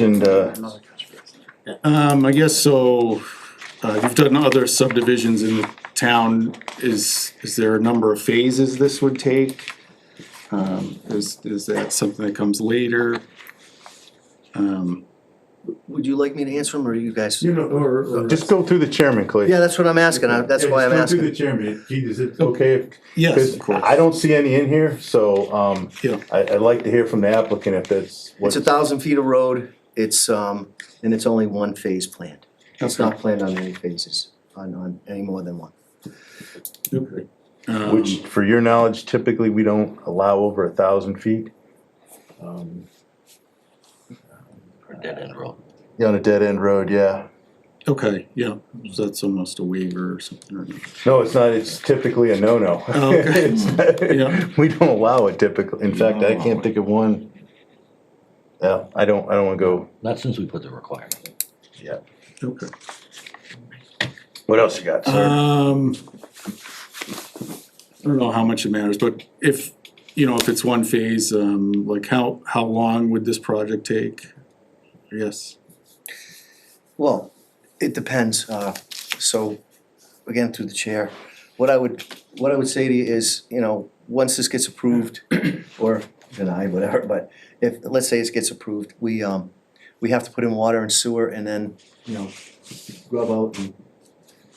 And, uh, Um, I guess so, uh, you've done other subdivisions in the town, is, is there a number of phases this would take? Um, is, is that something that comes later? Um, Would you like me to answer them, or you guys? You know, or, or. just go through the chairman, Clay. Yeah, that's what I'm asking, I- that's why I'm Yeah, just go asking. through the chairman, Gee, is it okay? Okay, if- yes, 'cause of course, I don't see any in here, so, um, yeah, I, I'd like to hear from the applicant if that's It's what, a thousand feet of road, it's, um, and it's only one phase planned. It's Okay. not planned on any phases, on, on any more than one. um, which, for your knowledge, typically we don't allow over a thousand feet Um, dead end road. on a dead-end road, yeah. okay, yeah, so that's almost a waiver or something, or, No, it's not, it's typically a no-no. Oh, okay. It's- Yeah. We don't allow it typically, in fact, I No. can't think of one. Yeah, I don't, I don't wanna go, Not since we put the requirement. okay. what else you got, sir? Um, I don't know how much it matters, but if, you know, if it's one phase, um, like how, how long would this project take? Yes, Well, it depends, uh, so, again, through the chair, what I would, what I would say to you is, you know, once this gets approved, or denied, whatever, but if, let's say it gets approved, we, um, we have to put in water and sewer and then, you know, grub out and,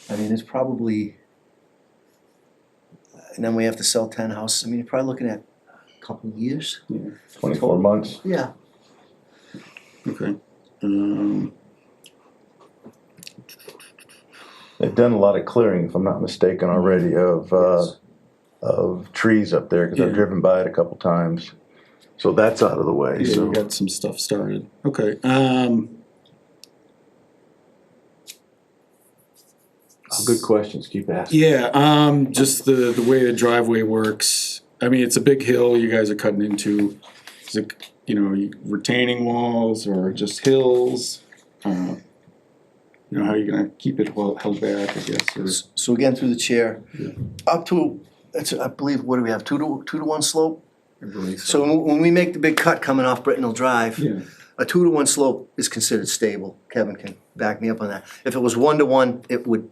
I mean, it's probably, and then we have to sell ten houses, I mean, you're probably looking at a couple of years. Twenty-four months? Yeah. okay. Um, They've done a lot of clearing, if I'm not mistaken, already of, uh, Yes. of trees up there, cause I've Yeah. driven by it a couple times. So that's out of the way, yeah, so. we got some stuff started, okay, um, Good questions, keep asking. yeah, um, just the, the way the driveway works. I mean, it's a big hill you guys are cutting into, is it, you know, retaining walls or just hills? Uh, You know, how you gonna keep it held, held back, I guess, or? S- So again, through the chair, Yeah. up to, it's, I believe, what do we have, two to, two to one slope? I believe So when- when we make the big cut coming off Brittenell Drive, Yeah, a two to one slope is considered stable. Kevin can back me up on that. If it was one to one, it would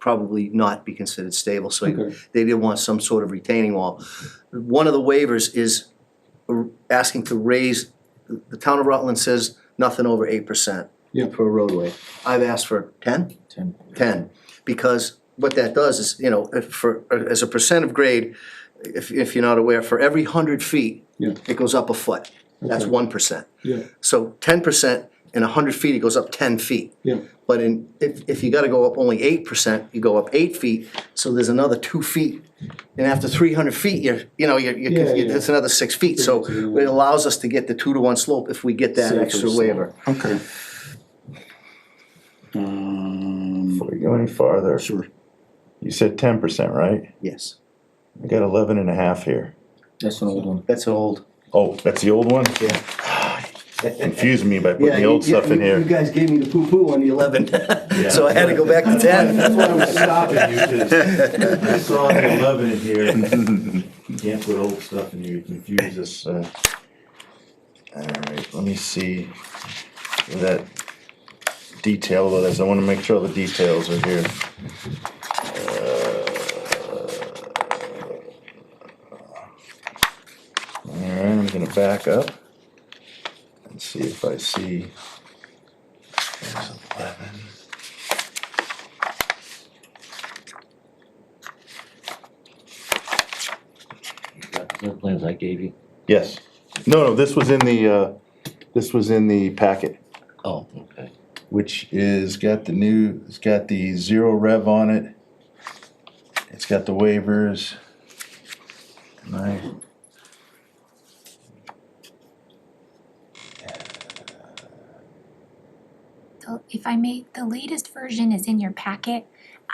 probably not be considered stable, so you- okay, they did want some sort of retaining wall. One of the waivers is r- asking to raise, the town of Rutland says nothing over eight percent Yeah. for a roadway. I've asked for ten? Ten. because what that does is, you know, if for, as a percent of grade, if, if you're not aware, for every hundred feet, Yeah. it goes up a foot. That's Okay. one percent. yeah, So ten percent in hundred feet, it goes up ten feet. yeah, But in, if, if you gotta go up only eight percent, you go up eight feet, so there's another two feet. And after three hundred feet, you're, you know, you're, Yeah, you're, yeah. it's another six feet, so Yeah. it allows us to get the two to one slope if we get that Safer extra slope. waiver. okay. Um, Before we go any farther, sure, you said ten percent, right? Yes, I got eleven and a half here. that's old. Oh, that's the old one? Yeah. Confusing me by putting the old stuff in You here. guys gave me the poo-poo on the eleven, so I had to go back to That's why I was ten. stopping you, cause I saw the eleven in here, you can't put old stuff in here, you confuse us. Uh, All right, let me see that detail, though, that's, I wanna make sure all the details are here. Uh, All right, I'm gonna back up and see if I see. There's eleven. The plans I gave you. Yes, no, no, this was in the, uh, this was in the packet. Oh, okay. which is got the new, it's got the zero rev on it. It's got the waivers. And I. the- if I may, the latest version is in your packet.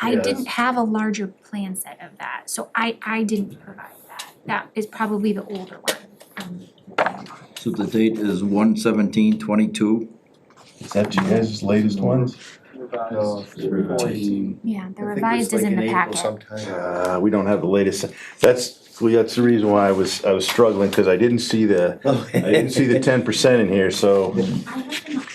I Yes. didn't have a larger plan set of that, so I, I didn't provide that. That is probably the older one. Um, So the date is one seventeen twenty-two. Is that you guys' latest ones? fourteen, Yeah, the revised is in the packet. Uh, we don't have the latest, that's, Well, that's the reason why I was, I was struggling, cause I didn't see the, I didn't see the ten percent in here, so. I have them up.